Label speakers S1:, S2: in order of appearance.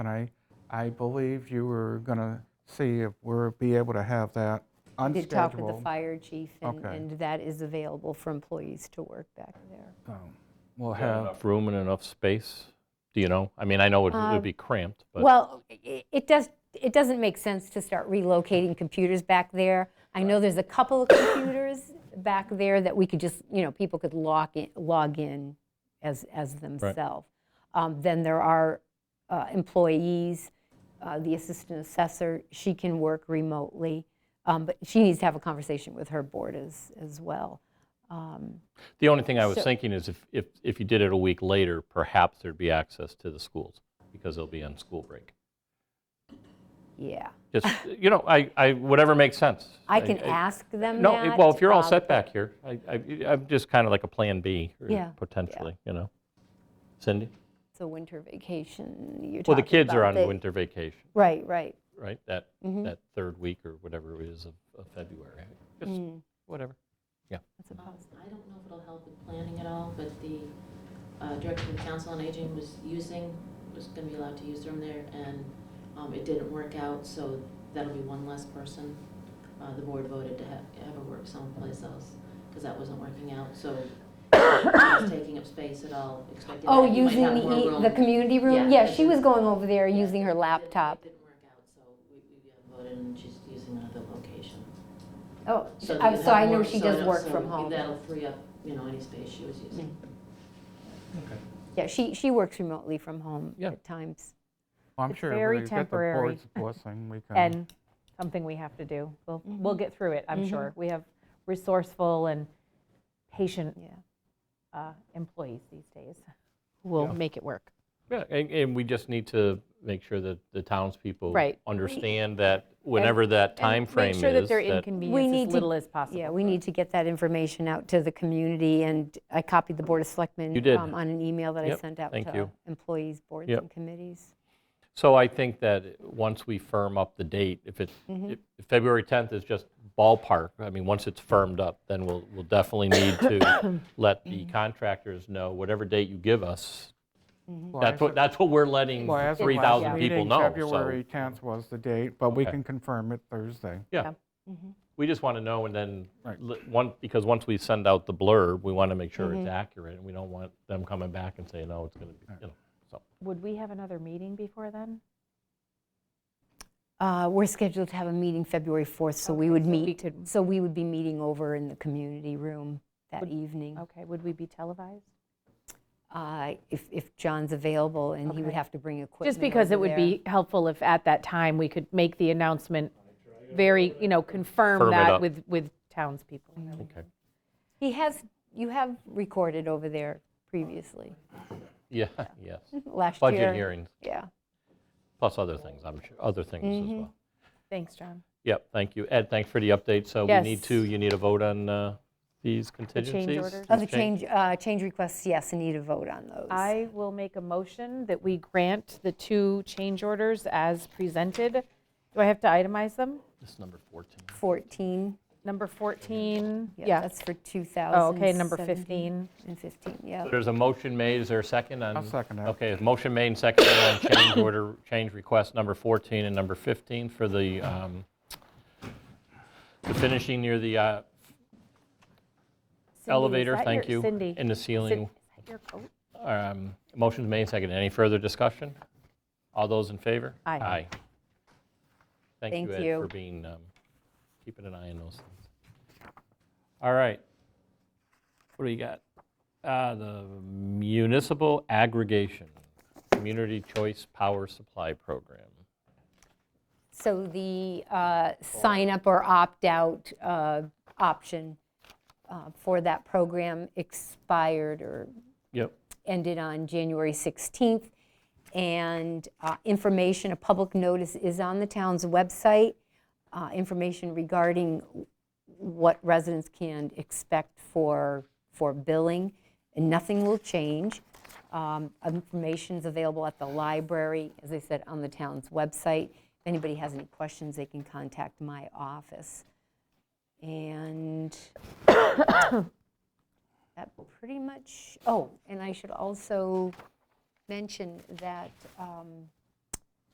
S1: And I, I believe you were going to see if we're be able to have that
S2: We Did talk with the
S1: unscheduled.
S2: fire chief, and
S1: Okay.
S2: and that is available for employees to work back there.
S1: Um, We'll
S3: Is there
S1: have,
S3: Enough room and enough space? Do you know? I mean, I know it would be cramped, but
S2: Um, Well, i- it does, it doesn't make sense to start relocating computers back there. I know there's a couple of computers back there that we could just, you know, people could log in, log in as, as themselves. Um, Then there are uh, employees, uh, the assistant assessor, she can work remotely, um, but she needs to have a conversation with her board as, as well.
S3: the only thing I was
S2: so-
S3: thinking is if, if, if you did it a week later, perhaps there'd be access to the schools because they'll be on school break.
S2: Yeah.
S3: Just, you know, I, I, whatever makes sense.
S2: I can ask them
S3: No,
S2: that,
S3: well, if you're all
S2: um,
S3: set back here, I, I, I'm just kind of like a plan B or
S2: Yeah, yeah.
S3: potentially, you know? Cindy?
S2: So winter vacation, you're talking
S3: Well, the kids are
S2: about
S3: on
S2: the- Mm-hmm.
S3: winter vacation,
S2: Right, right.
S3: right? That, that third week or whatever it is of of February. Just
S2: Mm.
S3: whatever.
S2: That's a positive.
S4: I don't know if it'll help with planning at all, but the uh, Director of Council on Aging was using, was going to be allowed to use the room there, and um, it didn't work out, so that'll be one less person. Uh, The board voted to have, have her work someplace else, because that wasn't working out, so she was taking up space at all, expecting
S2: Oh,
S4: that you might
S2: using
S4: have more
S2: the,
S4: room.
S2: e- the community room?
S4: Yeah.
S2: Yeah, she was going over there using her laptop.
S4: It didn't work out, so we, we voted, and she's using another location.
S2: Oh,
S4: So
S2: I-
S4: you'll
S2: so I
S4: have
S2: know
S4: more-
S2: she
S4: so I
S2: does
S4: know-
S2: work
S4: so
S2: from home.
S4: That'll free up, you know, any space she was using.
S2: Yeah, she, she works remotely from home
S3: Yeah.
S2: at times.
S1: I'm
S5: It's
S1: sure
S5: very
S1: we get the
S5: temporary.
S1: board's blessing, we can.
S5: and something we have to do. We'll, we'll get through it, I'm sure. We have resourceful and patient
S2: Yeah.
S5: uh, employees these days who will make it work.
S3: Yeah, and, and we just need to make sure that the townspeople
S5: Right.
S3: understand that whenever that time frame is.
S5: Make sure that they're
S2: We
S5: inconvenienced
S2: need
S5: as
S2: to-
S5: little as possible.
S2: Yeah, we need to get that information out to the community, and I copied the Board of Selectmen.
S3: You did.
S2: um, On an email that I
S3: Yep,
S2: sent out
S3: thank
S2: to
S3: you.
S2: employees, boards,
S3: Yep.
S2: and committees.
S3: So I think that once we firm up the date, if it,
S5: Mm-hmm.
S3: if if February 10th is just ballpark, I mean, once it's firmed up, then we'll, we'll definitely need to let the
S5: Mm-hmm.
S3: contractors know, whatever date you give us,
S1: Well,
S3: that's
S1: I-
S3: what, that's what we're letting
S1: well, as of last
S3: 3,000
S1: meeting,
S3: people know. So
S1: February 10th was the date, but we
S3: Okay.
S1: can confirm it Thursday.
S3: Yeah. We just want to know and then,
S1: Right.
S3: l- one, because once we send out the blurb, we want to make sure it's accurate and we don't want them coming back and saying, no, it's going to be, you know, so.
S5: Would we have another meeting before then?
S2: Uh, We're scheduled to have a meeting February 4th, so we would
S5: so we
S2: meet,
S5: could-
S2: so we would be meeting over in the community room that evening.
S5: Okay, would we be televised?
S2: uh, if, if John's available, and he would
S5: Okay.
S2: have to bring equipment.
S5: Just because it
S2: over
S5: would
S2: there.
S5: be helpful if at that time we could make the announcement very, you know,
S3: Firm
S5: confirm
S3: it
S5: that
S3: up.
S5: with, with townspeople.
S3: Okay.
S2: He has, you have recorded over there previously,
S3: Yeah, yes.
S2: last year.
S3: Budget hearings,
S2: Yeah.
S3: plus other things, I'm sure, other things as well.
S5: Thanks, John.
S3: Yep, thank you. Ed, thanks for the update. So we need
S5: Yes.
S3: to, you need a vote on uh, these contingencies?
S5: orders?
S2: Oh,
S3: These
S2: the change, uh, change requests, yes, I need a vote on those.
S5: I will make a motion that we grant the two change orders as presented. Do I have to itemize them?
S3: This is number 14.
S2: 14,
S5: Number 14,
S2: yeah,
S5: yeah.
S2: that's for
S5: Oh, okay, number
S2: 2017
S5: 15.
S2: and 15, yeah.
S3: There's a motion made, is there a second on?
S1: I'll second that.
S3: Okay, a motion made and seconded on change order, change request number 14 and number 15 for the, um, the finishing near the uh,
S5: Cindy, is
S3: elevator,
S5: that
S3: thank
S5: your-
S3: you.
S5: Cindy.
S3: In the
S5: Cin-
S3: ceiling.
S5: Is that your coat?
S3: Um, Motion's made, and seconded. Any further discussion? All those in favor?
S5: Aye.
S3: Aye. Thank you,
S2: Thank
S3: Ed,
S2: you.
S3: for being, um, keeping an eye on those things. All right. What do we got? Uh, The Municipal Aggregation Community Choice Power Supply Program.
S2: So the uh, sign-up or opt-out uh, option uh, for that program expired or
S3: Yep.
S2: ended on January 16th. And uh, information, a public notice is on the town's website, uh, information regarding what residents can expect for, for billing, and nothing will change. Um, Information's available at the library, as I said, on the town's website. If anybody has any questions, they can contact my office. And that pretty much, oh, and I should also mention that um,